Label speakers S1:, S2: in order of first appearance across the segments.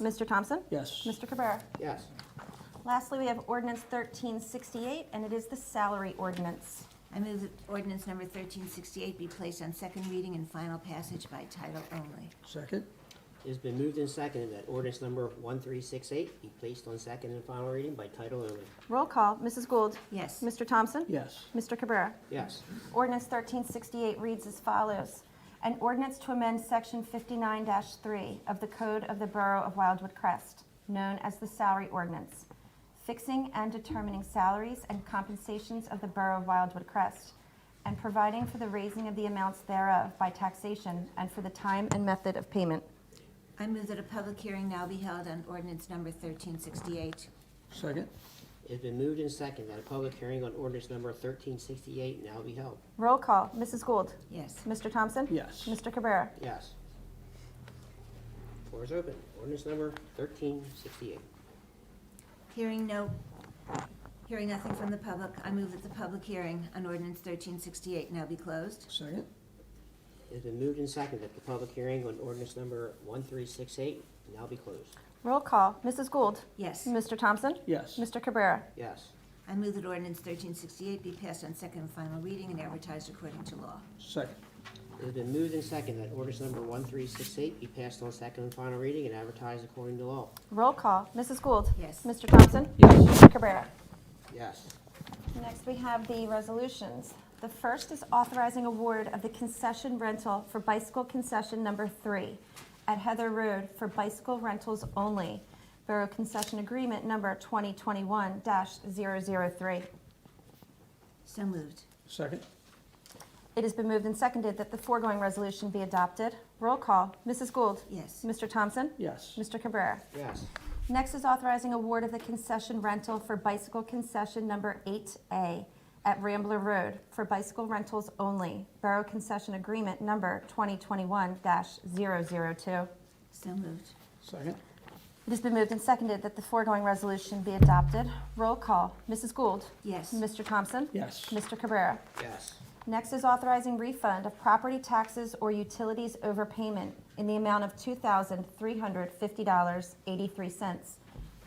S1: Mr. Thompson?
S2: Yes.
S1: Mr. Cabrera?
S3: Yes.
S1: Lastly, we have ordinance 1368, and it is the salary ordinance.
S4: I move that ordinance number 1368 be placed on second reading and final passage by title only.
S2: Second?
S3: It's been moved and seconded that ordinance number 1368 be placed on second and final reading by title only.
S1: Roll call, Mrs. Gould?
S4: Yes.
S1: Mr. Thompson?
S2: Yes.
S1: Mr. Cabrera?
S3: Yes.
S1: Ordinance 1368 reads as follows. An ordinance to amend Section 59-3 of the Code of the Borough of Wildwood Crest, known as the Salary Ordinance, fixing and determining salaries and compensations of the Borough of Wildwood Crest, and providing for the raising of the amounts thereof by taxation and for the time and method of payment.
S4: I move that a public hearing now be held on ordinance number 1368.
S2: Second?
S3: It's been moved and seconded that a public hearing on ordinance number 1368 now be held.
S1: Roll call, Mrs. Gould.
S4: Yes.
S1: Mr. Thompson?
S2: Yes.
S1: Mr. Cabrera?
S3: Yes. Floor is open. Ordinance number 1368.
S4: Hearing no, hearing nothing from the public, I move that the public hearing on ordinance 1368 now be closed.
S2: Second?
S3: It's been moved and seconded that the public hearing on ordinance number 1368 now be closed.
S1: Roll call, Mrs. Gould.
S4: Yes.
S1: Mr. Thompson?
S2: Yes.
S1: Mr. Cabrera?
S3: Yes.
S4: I move that ordinance 1368 be passed on second and final reading and advertised according to law.
S2: Second?
S3: It's been moved and seconded that ordinance number 1368 be passed on second and final reading and advertised according to law.
S1: Roll call, Mrs. Gould.
S4: Yes.
S1: Mr. Thompson?
S2: Yes.
S1: Mr. Cabrera?
S3: Yes.
S1: Next, we have the resolutions. The first is authorizing award of the concession rental for bicycle concession number three at Heather Road for bicycle rentals only, Borough Concession Agreement number 2021-003.
S4: So moved.
S2: Second?
S1: It has been moved and seconded that the foregoing resolution be adopted. Roll call, Mrs. Gould.
S4: Yes.
S1: Mr. Thompson?
S2: Yes.
S1: Mr. Cabrera?
S3: Yes.
S1: Next is authorizing award of the concession rental for bicycle concession number 8A at Rambler Road for bicycle rentals only, Borough Concession Agreement number 2021-002.
S4: So moved.
S2: Second?
S1: It has been moved and seconded that the foregoing resolution be adopted. Roll call, Mrs. Gould.
S4: Yes.
S1: Mr. Thompson.
S2: Yes.
S1: Mr. Cabrera.
S3: Yes.
S1: Next is authorizing refund of property taxes or utilities overpayment in the amount of $2,350.83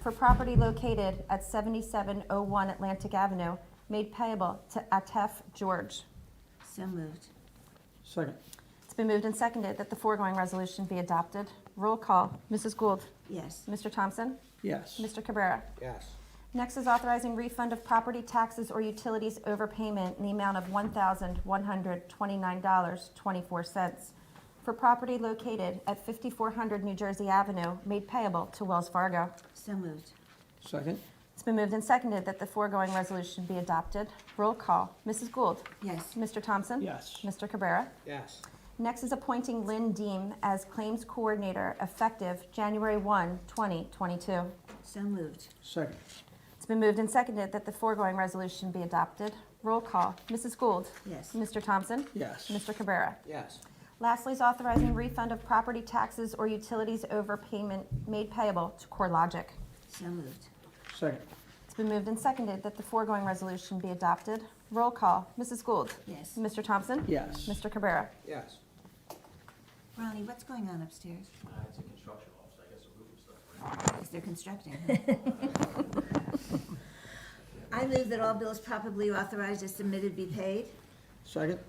S1: for property located at 7701 Atlantic Avenue, made payable to Atef George.
S4: So moved.
S2: Second?
S1: It's been moved and seconded that the foregoing resolution be adopted. Roll call, Mrs. Gould.
S4: Yes.
S1: Mr. Thompson.
S2: Yes.
S1: Mr. Cabrera.
S3: Yes.
S1: Next is authorizing refund of property taxes or utilities overpayment in the amount of $1,129.24 for property located at 5400 New Jersey Avenue, made payable to Wells Fargo.
S4: So moved.
S2: Second?
S1: It's been moved and seconded that the foregoing resolution be adopted. Roll call, Mrs. Gould.
S4: Yes.
S1: Mr. Thompson?
S2: Yes.
S1: Mr. Cabrera?
S3: Yes.
S1: Next is appointing Lynn Deem as Claims Coordinator effective January 1, 2022.
S4: So moved.
S2: Second?
S1: It's been moved and seconded that the foregoing resolution be adopted. Roll call, Mrs. Gould.
S4: Yes.
S1: Mr. Thompson.
S2: Yes.
S1: Mr. Cabrera.
S3: Yes.
S1: Lastly is authorizing refund of property taxes or utilities overpayment made payable to CoreLogic.
S4: So moved.
S2: Second?
S1: It's been moved and seconded that the foregoing resolution be adopted. Roll call, Mrs. Gould.
S4: Yes.
S1: Mr. Thompson.
S2: Yes.
S1: Mr. Cabrera.
S3: Yes.
S4: Ronnie, what's going on upstairs?
S5: Uh, it's a construction office, I guess, a roof and stuff, right?
S4: Because they're constructing. huh? I move that all bills properly authorized as submitted be paid.
S2: Second?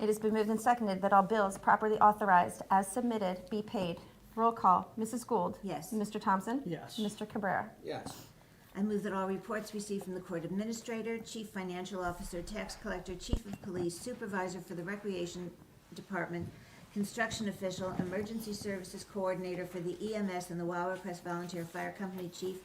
S1: It has been moved and seconded that all bills properly authorized as submitted be paid. Roll call, Mrs. Gould.
S4: Yes.
S1: Mr. Thompson.
S2: Yes.
S1: Mr. Cabrera.
S3: Yes.
S4: I move that all reports received from the court administrator, chief financial officer, tax collector, chief of police, supervisor for the recreation department, construction official, emergency services coordinator for the EMS and the Wild Crest Volunteer Fire Company chief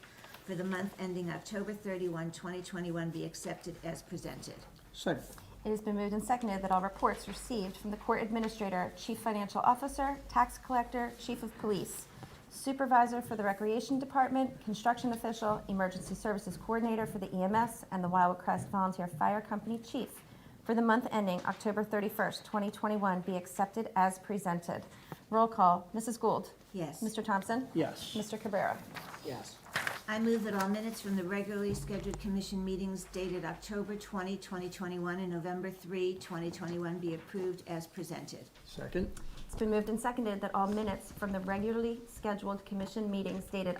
S4: for the month ending October 31, 2021 be accepted as presented.
S2: Second?
S1: It has been moved and seconded that all reports received from the court administrator, chief financial officer, tax collector, chief of police, supervisor for the recreation department, construction official, emergency services coordinator for the EMS, and the Wildwood Crest Volunteer Fire Company chief for the month ending October 31st, 2021 be accepted as presented. Roll call, Mrs. Gould.
S4: Yes.
S1: Mr. Thompson.
S2: Yes.
S1: Mr. Cabrera.
S3: Yes.
S4: I move that all minutes from the regularly scheduled commission meetings dated October 20, 2021, and November 3, 2021 be approved as presented.
S2: Second?
S1: It's It's been moved and seconded that all minutes from the regularly scheduled commission meetings dated